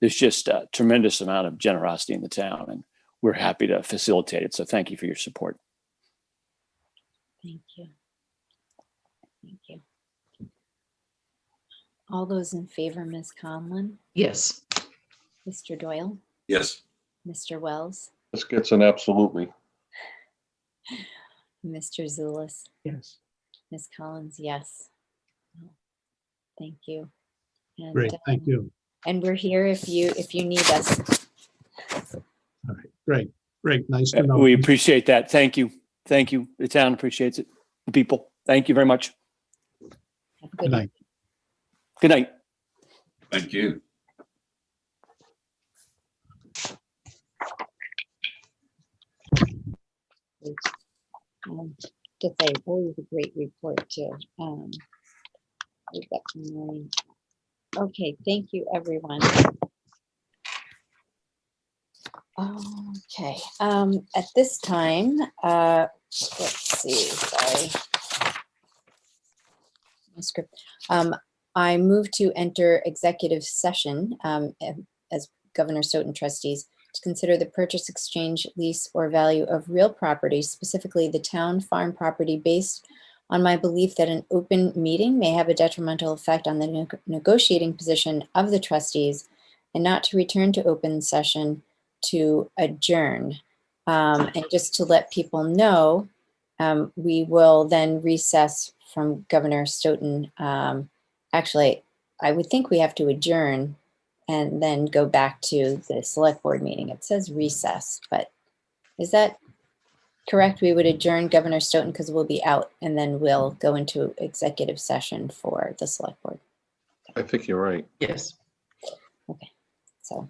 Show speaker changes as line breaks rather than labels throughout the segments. there's just a tremendous amount of generosity in the town, and we're happy to facilitate it. So thank you for your support.
Thank you. Thank you. All those in favor, Ms. Conlon,
Yes.
Mr. Doyle,
Yes.
Mr. Wells,
This gets an absolutely.
Mr. Zulus,
Yes.
Ms. Collins, yes. Thank you. And,
Great, thank
um,
you.
And we're here if you, if you need us.
All right, great, great, nice to
Uh,
know.
We appreciate that. Thank you. Thank you. The town appreciates it. The people. Thank you very much.
Have a
Good
good
night.
Good night.
Thank you.
um, Just say, always a great report too. um, we got some learning. Okay, thank you, everyone. Okay, um, at this time, uh, let's see, sorry. My script, um, I move to enter executive session, um, am- as Governor Stoughton trustees to consider the purchase, exchange, lease, or value of real property, specifically the town farm property, based on my belief that an open meeting may have a detrimental effect on the neg- negotiating position of the trustees and not to return to open session to adjourn. Um, and just to let people know, um, we will then recess from Governor Stoughton. Um, actually, I would think we have to adjourn and then go back to the select board meeting. It says recess, but is that correct? We would adjourn Governor Stoughton because we'll be out and then we'll go into executive session for the select board.
I think you're right.
Yes.
So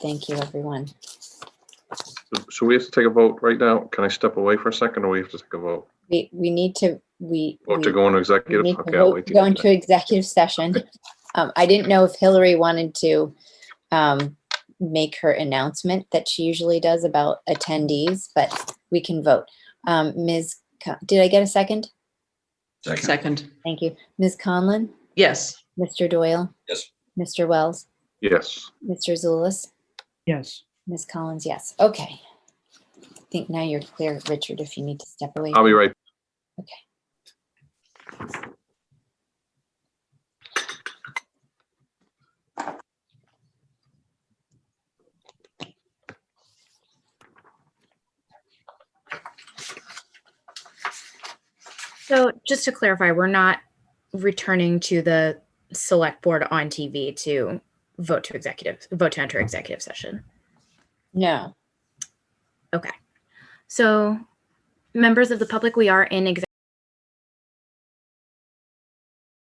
thank you, everyone.
So- So we have to take a vote right now. Can I step away for a second or we have to take a vote?
We, we need to, we.
Vote to
we-
go into
we
executive?
need to
Okay, I'll
vote-
wait. to
Go
get to
into executive session. Um, I didn't know if Hillary wanted to um, make her announcement that she usually does about attendees, but we can vote. Um, Ms., Co- did I get a second?
Second.
Second.
Thank you. Ms. Conlon,
Yes.
Mr. Doyle,
Yes.
Mr. Wells,
that. Yes.
Mr. Zulus,
Yes.
Ms. Collins, yes. Okay. I think now you're clear, Richard, if you need to step away.
I'll be right
So just to clarify, we're not returning to the select board on TV to vote to executive, vote to enter executive session.
No.
So members of the public, we are in executive